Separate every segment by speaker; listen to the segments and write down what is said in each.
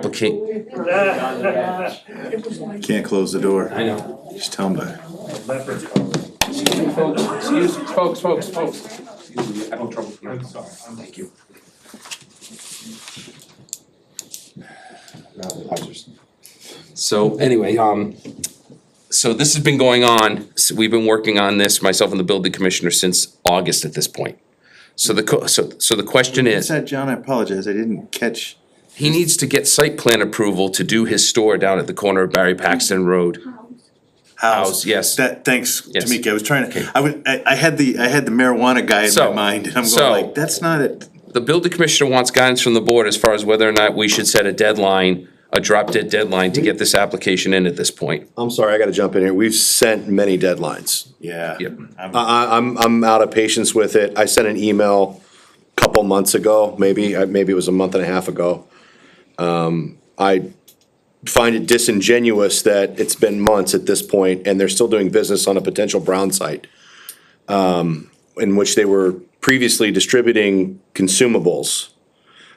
Speaker 1: applicant,
Speaker 2: Can't close the door.
Speaker 1: I know.
Speaker 2: Just tell them to.
Speaker 1: Excuse me, folks, excuse, folks, folks, folks. Excuse me, I'm in trouble here. I'm sorry. Thank you. So anyway, um, so this has been going on, s- we've been working on this, myself and the building commissioner, since August at this point. So the, co- so, so the question
Speaker 2: I
Speaker 1: is,
Speaker 2: said, John, I apologize, I didn't catch.
Speaker 1: he needs to get site plan approval to do his store down at the corner of Barry Paxton Road. House, Oh, yes.
Speaker 2: That, thanks,
Speaker 1: Yes.
Speaker 2: Tamika, I was trying to, I would, I, I had the, I had the marijuana guy in my
Speaker 1: So-
Speaker 2: mind, and I'm
Speaker 1: so-
Speaker 2: going like, that's not it.
Speaker 1: The building commissioner wants guidance from the board as far as whether or not we should set a deadline, a drop dead deadline to get this application in at this point.
Speaker 3: I'm sorry, I gotta jump in here. We've sent many deadlines.
Speaker 2: Yeah.
Speaker 1: Yep.
Speaker 2: I'm-
Speaker 4: Uh,
Speaker 3: I, I, I'm, I'm out of patience with it. I sent an email a couple months ago, maybe, uh, maybe it was a month and a half ago. Um, I find it disingenuous that it's been months at this point and they're still doing business on a potential brown site. Um, in which they were previously distributing consumables.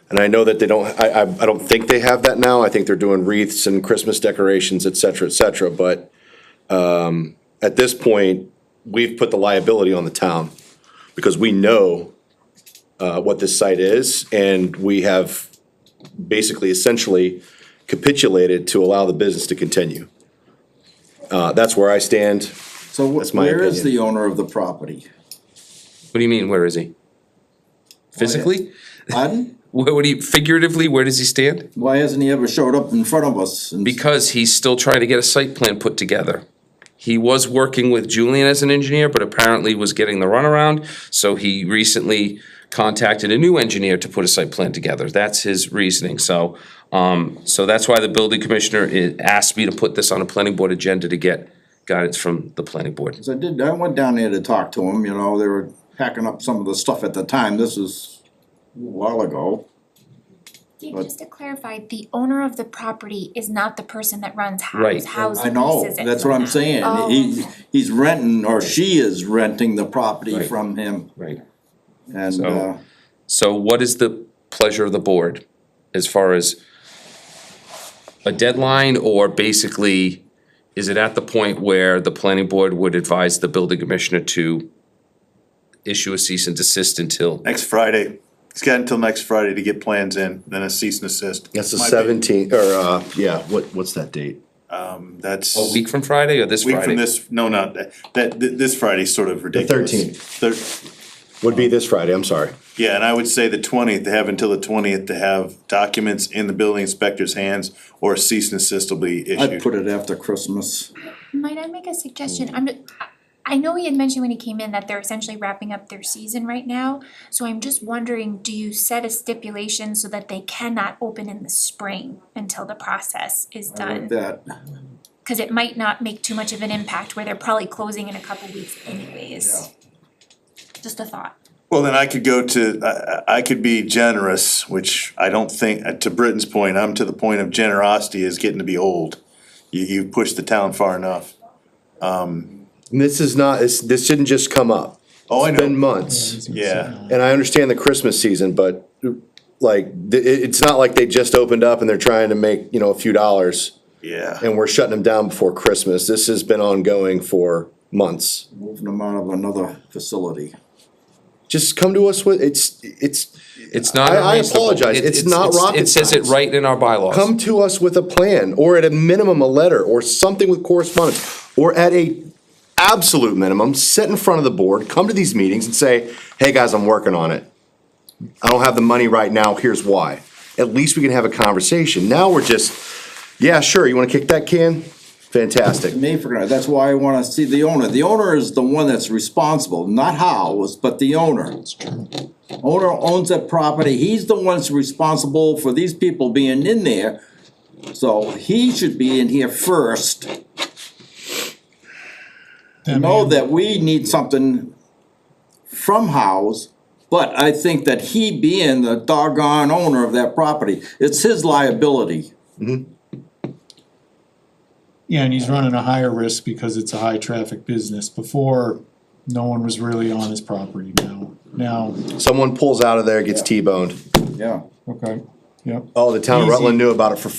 Speaker 3: And I know that they don't, I, I, I don't think they have that now. I think they're doing wreaths and Christmas decorations, et cetera, et cetera, but um, at this point, we've put the liability on the town because we know uh, what this site is and we have basically essentially capitulated to allow the business to continue. Uh, That's where I stand.
Speaker 4: So
Speaker 3: That's
Speaker 4: wh-
Speaker 3: my
Speaker 4: where is
Speaker 3: opinion.
Speaker 4: the owner of the property?
Speaker 1: What do you mean, where is he? Physically?
Speaker 4: Pardon?
Speaker 1: Where would he, figuratively, where does he stand?
Speaker 4: Why hasn't he ever showed up in front of us? and-
Speaker 1: Because he's still trying to get a site plan put together. He was working with Julian as an engineer, but apparently was getting the runaround, so he recently contacted a new engineer to put a site plan together. That's his reasoning, so, um, so that's why the building commissioner i- asked me to put this on a planning board agenda to get guidance from the planning board.
Speaker 4: 'Cause I did, I went down there to talk to him, you know, they were packing up some of the stuff at the time, this is a while ago.
Speaker 5: Dave, just to clarify, the owner of the property is not the person that runs
Speaker 1: Right.
Speaker 5: house, house
Speaker 4: I know,
Speaker 5: leases it.
Speaker 4: that's what I'm saying, he, he's renting, or she is renting the property
Speaker 1: Right.
Speaker 4: from him,
Speaker 1: Right.
Speaker 4: and,
Speaker 1: So-
Speaker 4: uh,
Speaker 1: So what is the pleasure of the board as far as a deadline or basically, is it at the point where the planning board would advise the building commissioner to issue a cease and desist until,
Speaker 2: Next Friday, he's got until next Friday to get plans in, then a cease and assist.
Speaker 3: That's the
Speaker 2: My bad.
Speaker 3: seventeenth, or, uh, yeah, what, what's that date?
Speaker 2: That's.
Speaker 1: a week from Friday or this Friday?
Speaker 2: Week from this, no, not, that, that, th- this Friday's sort of ridiculous.
Speaker 3: 13th.
Speaker 2: Thir-
Speaker 3: Would be this Friday, I'm sorry.
Speaker 2: yeah, and I would say the twentieth, they have until the twentieth to have documents in the building inspector's hands or a cease and assist will be
Speaker 4: I'd
Speaker 2: issued.
Speaker 4: put it after Christmas.
Speaker 5: Might I make a suggestion? I'm, I- I know he had mentioned when he came in that they're essentially wrapping up their season right now. So I'm just wondering, do you set a stipulation so that they cannot open in the spring until the process is
Speaker 4: I like
Speaker 5: done?
Speaker 4: that,
Speaker 5: Cause it might not make too much of an impact where they're probably closing in a couple weeks anyways. Just a thought.
Speaker 2: Well, then I could go to, I- I, I could be generous, which I don't think, uh, to Britton's point, I'm to the point of generosity is getting to be old. You, you pushed the town far enough.
Speaker 3: And this is not, this, this didn't just come up.
Speaker 2: Oh, I
Speaker 3: It's been
Speaker 2: know,
Speaker 3: months.
Speaker 2: yeah,
Speaker 3: And I understand the Christmas season, but like, th- it, it's not like they just opened up and they're trying to make, you know, a few dollars.
Speaker 2: yeah.
Speaker 3: and we're shutting them down before Christmas. This has been ongoing for months.
Speaker 4: moving them out of another facility.
Speaker 3: Just come to us with, it's, it's,
Speaker 1: It's not
Speaker 3: I- I
Speaker 1: unreasonable.
Speaker 3: apologize.
Speaker 1: It-
Speaker 3: It's not rocket
Speaker 1: It says it
Speaker 3: science.
Speaker 1: right in our bylaws.
Speaker 3: come to us with a plan, or at a minimum, a letter, or something with correspondence, or at a absolute minimum, sit in front of the board, come to these meetings and say, hey, guys, I'm working on it. I don't have the money right now, here's why. At least we can have a conversation. Now we're just, yeah, sure, you wanna kick that can? Fantastic.
Speaker 4: me for granted. That's why I wanna see the owner. The owner is the one that's responsible, not Howes, but the owner. Owner owns that property. He's the one that's responsible for these people being in there. So he should be in here first. Know that we need something from Howes, but I think that he being the doggone owner of that property, it's his liability.
Speaker 6: Yeah, and he's running a higher risk because it's a high traffic business. Before, no one was really on his property now. Now,
Speaker 3: Someone pulls out of there, gets T-boned.
Speaker 4: Yeah.
Speaker 6: okay. Yep.
Speaker 3: Oh, the town of
Speaker 6: Easy.
Speaker 3: Rutland knew about it for